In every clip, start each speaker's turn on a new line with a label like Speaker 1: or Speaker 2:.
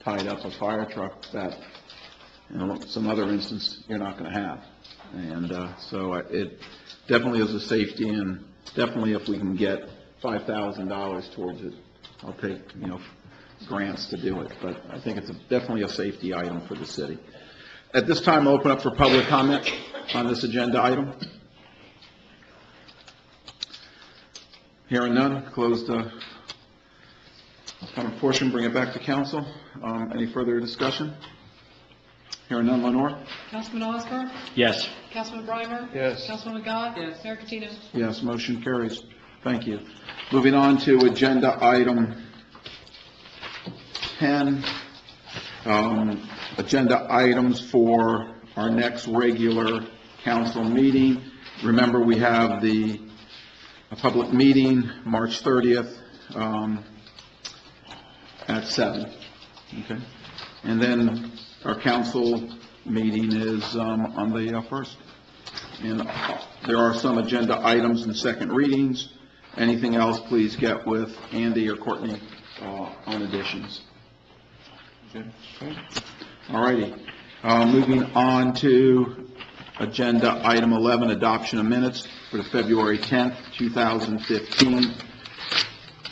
Speaker 1: tied up a fire truck that, you know, some other instance, you're not going to have. And uh, so I- it definitely is a safety, and definitely if we can get $5,000 towards it, I'll take, you know, grants to do it, but I think it's a- definitely a safety item for the city. At this time, I'll open up for public comment on this agenda item. Hearing none, close the comment portion, bring it back to council. Um, Any further discussion? Hearing none, Lenore?
Speaker 2: Councilman Osmer?
Speaker 3: Yes.
Speaker 2: Councilman Brimer?
Speaker 1: Yes.
Speaker 2: Councilwoman Gott? Yes. Mayor Patino?
Speaker 1: Yes, motion carries. Thank you. Moving on to agenda item 10, um, agenda items for our next regular council meeting. Remember, we have the a public meeting, March 30th, um, at 7. Okay? And then our council meeting is um, on the uh, 1st. And there are some agenda items and second readings. Anything else, please get with Andy or Courtney uh, on additions. All righty. Uh, Moving on to agenda item 11, adoption of minutes for the February 10th, 2015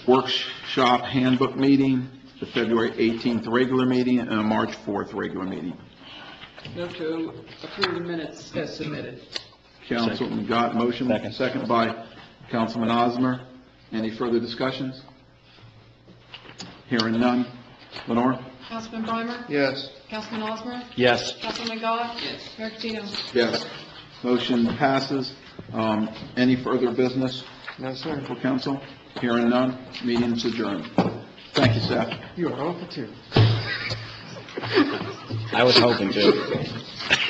Speaker 1: workshop handbook meeting, the February 18th regular meeting, and a March 4th regular meeting.
Speaker 4: Move to approve the minutes as submitted.
Speaker 1: Councilman Gott, motion,
Speaker 3: Second.
Speaker 1: second by Councilman Osmer. Any further discussions? Hearing none. Lenore?
Speaker 2: Councilman Brimer?
Speaker 1: Yes.
Speaker 2: Councilman Osmer?
Speaker 3: Yes.
Speaker 2: Councilwoman Gott?
Speaker 4: Yes.
Speaker 2: Mayor Patino?
Speaker 1: Yes. Motion passes. Um, Any further business? No, sir. For council? Hearing none, meeting is adjourned. Thank you, staff.
Speaker 3: I was hoping to.